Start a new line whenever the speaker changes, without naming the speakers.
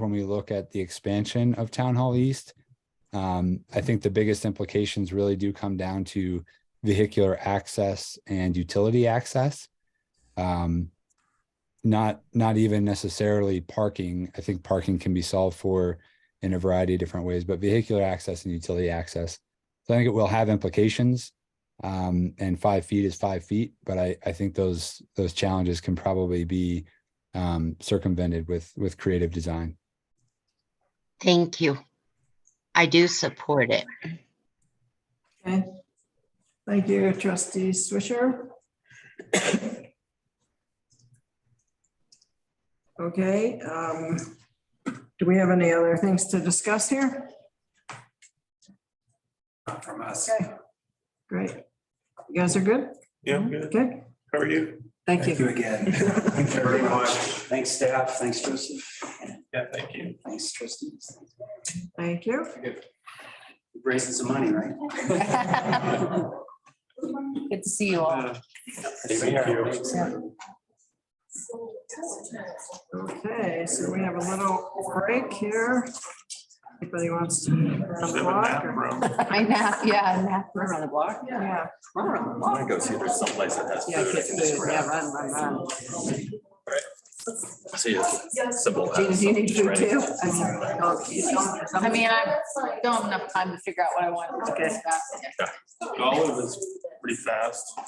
when we look at the expansion of Town Hall East. Um, I think the biggest implications really do come down to vehicular access and utility access. Um, not, not even necessarily parking. I think parking can be solved for in a variety of different ways, but vehicular access and utility access. So I think it will have implications. Um, and five feet is five feet, but I, I think those, those challenges can probably be um, circumvented with, with creative design.
Thank you. I do support it.
Okay. Thank you, trustee Swisher. Okay, um, do we have any other things to discuss here?
Not from us.
Okay, great. You guys are good?
Yeah, I'm good.
Good,
How are you?
thank
Thank you
you.
again.
Thank
you very much.
Thanks, staff. Thanks, Joseph.
Yeah, thank you.
Thanks, trustees.
Thank you.
Raising some money, right?
Good to see you all.
Thank you.
Okay, so we have a little break here. Anybody wants to
Just have a
unblock
nap
or?
room.
I nap, yeah, nap. We're on the block.
Yeah.
We're
I'm gonna go see if there's someplace that has
Yeah,
food. I
get
can
food,
just
yeah,
grab.
run, run, run.
See, it's simple.
Gina, do you need food
Right.
too? I mean, oh, you don't-
I mean, I don't have enough time to figure out what I want.
Okay.
Yeah.
All of this pretty fast.